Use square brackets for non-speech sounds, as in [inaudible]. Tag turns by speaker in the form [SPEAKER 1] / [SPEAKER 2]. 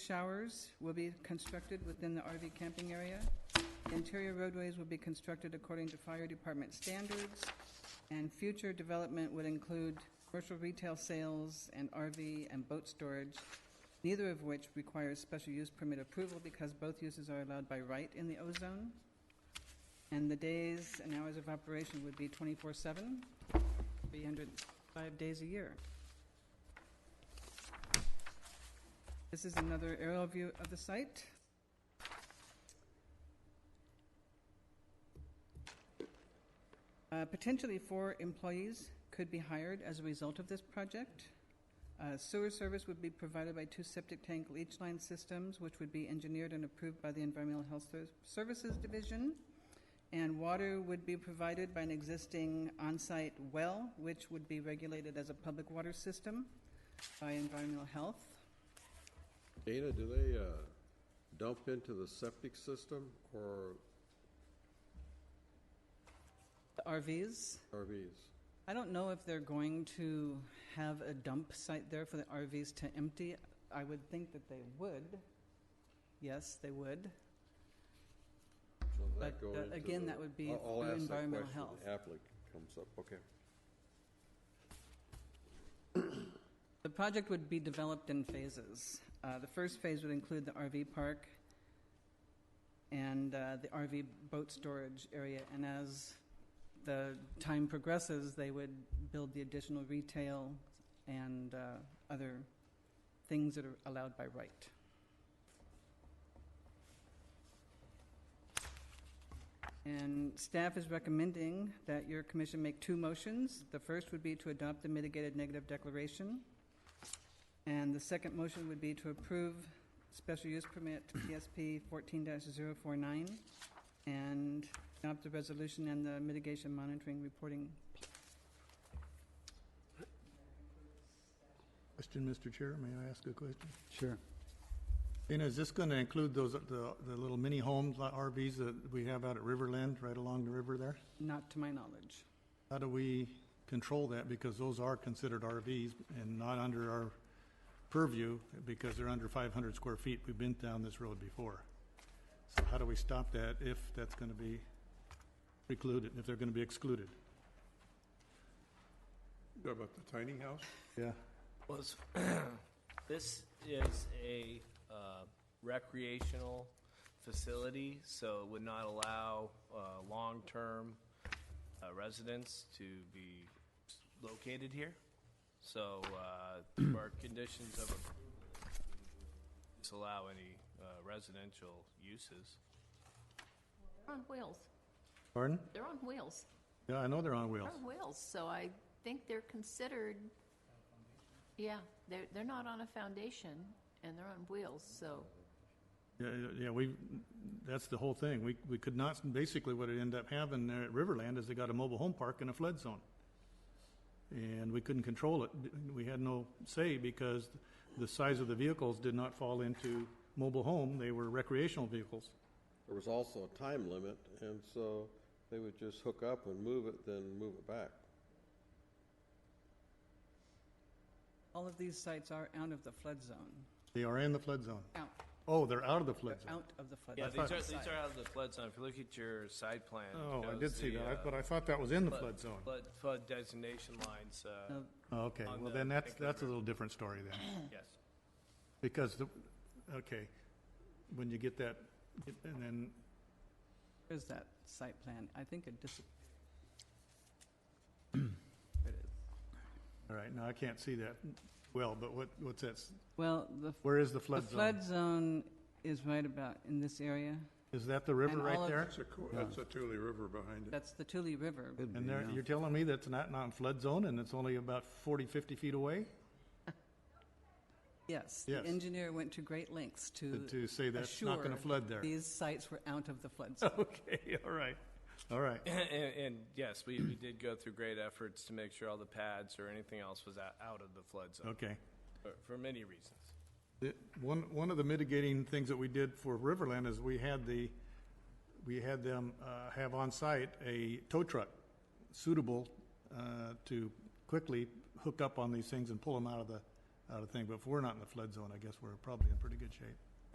[SPEAKER 1] showers will be constructed within the RV camping area. Interior roadways will be constructed according to fire department standards. And future development would include commercial retail sales and RV and boat storage, neither of which requires special use permit approval because both uses are allowed by right in the O-zone. And the days and hours of operation would be 24/7, 305 days a year. This is another aerial view of the site. Uh, Potentially four employees could be hired as a result of this project. Uh, Sewer service would be provided by two septic tank leach line systems, which would be engineered and approved by the Environmental Health Ser- Services Division. And water would be provided by an existing on-site well, which would be regulated as a public water system by Environmental Health.
[SPEAKER 2] Dana, do they uh, dump into the septic system or
[SPEAKER 1] The RVs,
[SPEAKER 2] RVs?
[SPEAKER 1] I don't know if they're going to have a dump site there for the RVs to empty. I would think that they would. Yes, they would.
[SPEAKER 2] So does that
[SPEAKER 1] But,
[SPEAKER 2] go
[SPEAKER 1] uh,
[SPEAKER 2] into
[SPEAKER 1] again,
[SPEAKER 2] the-
[SPEAKER 1] that would be
[SPEAKER 2] I'll- I'll
[SPEAKER 1] through
[SPEAKER 2] ask that
[SPEAKER 1] environmental
[SPEAKER 2] question
[SPEAKER 1] health.
[SPEAKER 2] Applicant comes up, okay.
[SPEAKER 1] The project would be developed in phases. Uh, The first phase would include the RV park and uh, the RV boat storage area, and as the time progresses, they would build the additional retail and uh, other things that are allowed by right. And staff is recommending that your commission make two motions. The first would be to adopt the mitigated negative declaration. And the second motion would be to approve special use permit PSP 14-049 and adopt the resolution and the mitigation monitoring reporting.
[SPEAKER 3] Question, Mr. Chair, may I ask a question?
[SPEAKER 4] Sure.
[SPEAKER 3] Dana, is this going to include those, the, the little mini homes, like RVs that we have out at Riverland, right along the river there?
[SPEAKER 1] Not to my knowledge.
[SPEAKER 3] How do we control that? Because those are considered RVs and not under our purview because they're under five hundred square feet. We've been down this road before. So how do we stop that if that's going to be precluded, if they're going to be excluded?
[SPEAKER 2] About the tiny house?
[SPEAKER 3] Yeah.
[SPEAKER 5] Well, this- this is a uh, recreational facility, so it would not allow uh, long-term uh, residents to be located here. So uh, through our conditions of approval, we disallow any uh, residential uses.
[SPEAKER 6] They're on wheels.
[SPEAKER 3] Pardon?
[SPEAKER 6] They're on wheels.
[SPEAKER 3] Yeah, I know they're on
[SPEAKER 6] They're
[SPEAKER 3] wheels.
[SPEAKER 6] on wheels, so I think they're considered, yeah, they're, they're not on a foundation, and they're on wheels, so,
[SPEAKER 3] Yeah, yeah, yeah, we, that's the whole thing. We, we could not, basically what it ended up having there at Riverland is they got a mobile home park in a flood zone. And we couldn't control it. We had no say because the size of the vehicles did not fall into mobile home. They were recreational vehicles.
[SPEAKER 2] There was also a time limit, and so they would just hook up and move it, then move it back.
[SPEAKER 1] All of these sites are out of the flood zone.
[SPEAKER 3] They are in the flood zone.
[SPEAKER 1] Out,
[SPEAKER 3] Oh, they're out of the flood zone.
[SPEAKER 1] out of the flood.
[SPEAKER 5] Yeah,
[SPEAKER 1] zone.
[SPEAKER 5] these are, these are out of the flood zone. If you look at your side plan. it
[SPEAKER 3] Oh, I
[SPEAKER 5] shows
[SPEAKER 3] did see
[SPEAKER 5] the,
[SPEAKER 3] that,
[SPEAKER 5] uh,
[SPEAKER 3] I- but I thought that was in the flood zone.
[SPEAKER 5] Flood, flood designation lines, uh,
[SPEAKER 1] No,
[SPEAKER 3] Oh, Okay,
[SPEAKER 5] on
[SPEAKER 3] well
[SPEAKER 5] the
[SPEAKER 3] then that's,
[SPEAKER 5] Vancouver.
[SPEAKER 3] that's a little different story then.
[SPEAKER 5] yes.
[SPEAKER 3] Because the, okay, when you get that, and then
[SPEAKER 1] There's that site plan. I think it dis,
[SPEAKER 3] All right, now I can't see that well, but what, what's that, s-
[SPEAKER 1] well, the
[SPEAKER 3] where is the
[SPEAKER 1] the
[SPEAKER 3] flood zone?
[SPEAKER 1] flood zone is right about in this area.
[SPEAKER 3] Is that the river
[SPEAKER 1] and all
[SPEAKER 3] right
[SPEAKER 1] of-
[SPEAKER 3] there?
[SPEAKER 7] That's a, co- that's a Tule River behind it.
[SPEAKER 1] That's the Tule River.
[SPEAKER 4] Could
[SPEAKER 3] And
[SPEAKER 4] be,
[SPEAKER 3] there,
[SPEAKER 4] yeah.
[SPEAKER 3] you're telling me that's not, not in flood zone and it's only about 40, 50 feet away?
[SPEAKER 1] Yes, the
[SPEAKER 3] Yes.
[SPEAKER 1] engineer went to great lengths to
[SPEAKER 3] To say that's not
[SPEAKER 1] assure
[SPEAKER 3] gonna flood there?
[SPEAKER 1] These sites were out of the flood zone.
[SPEAKER 3] [laughs] Okay, all right, all right.
[SPEAKER 5] And, and yes, we, we did go through great efforts to make sure all the pads or anything else was out, out of the flood zone
[SPEAKER 3] Okay.
[SPEAKER 5] for, for many reasons.
[SPEAKER 3] The- One, one of the mitigating things that we did for Riverland is we had the, we had them uh, have on site a tow truck suitable uh, to quickly hook up on these things and pull them out of the, out of thing, but if we're not in the flood zone, I guess we're probably in pretty good shape.